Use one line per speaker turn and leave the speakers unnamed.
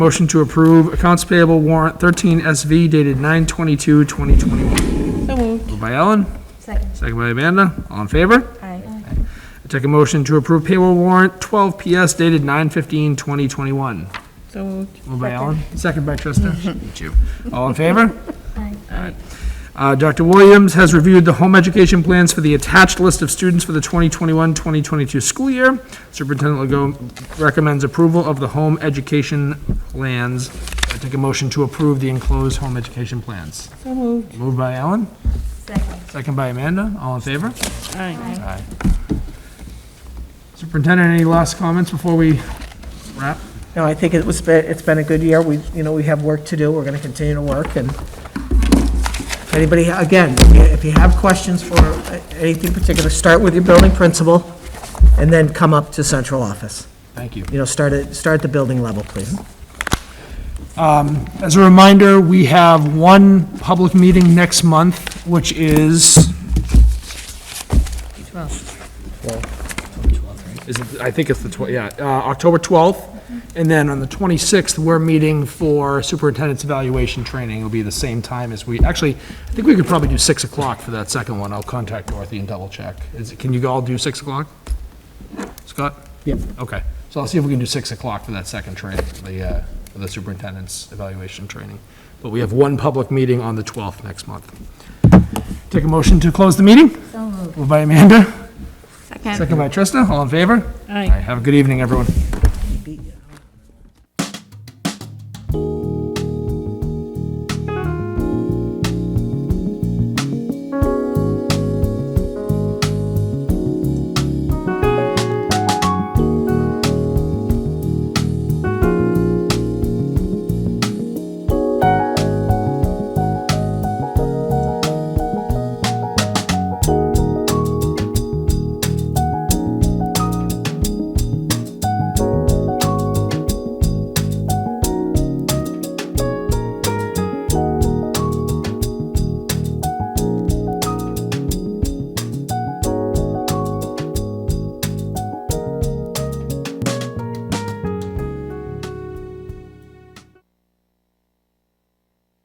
Motion to approve accounts payable warrant 13SV dated 9/22/2021.
So moved.
Moved by Ellen,
Second.
second by Amanda. All in favor?
Aye.
I take a motion to approve payroll warrant 12PS dated 9/15/2021.
So moved.
Moved by Ellen, second by Trista. Thank you. All in favor?
Aye.
Uh, Dr. Williams has reviewed the home education plans for the attached list of students for the 2021-2022 school year. Superintendent Legault recommends approval of the home education plans. I take a motion to approve the enclosed home education plans.
So moved.
Moved by Ellen,
Second.
second by Amanda. All in favor?
Aye.
Aye. Superintendent, any last comments before we wrap?
No, I think it was, be- it's been a good year. We, you know, we have work to do. We're going to continue to work and if anybody, again, if you- if you have questions for uh, anything particular, start with your building principal and then come up to central office.
Thank you.
You know, start at, start at the building level, please.
As a reminder, we have one public meeting next month, which is, is it, I think it's the 12th, yeah, uh, October 12th. And then on the 26th, we're meeting for superintendent's evaluation training. It'll be the same time as we, actually, I think we could probably do 6 o'clock for that second one. I'll contact Dorothy and double check. Is, it- can you all do 6 o'clock? Scott?
Yep.
Okay, so I'll see if we can do 6 o'clock for that second training, the, uh, for the superintendent's evaluation training. But we have one public meeting on the 12th next month. Take a motion to close the meeting?
So moved.
Moved by Amanda,
Second.
second by Trista, all in favor?
Aye.
All right, Have a good evening, everyone.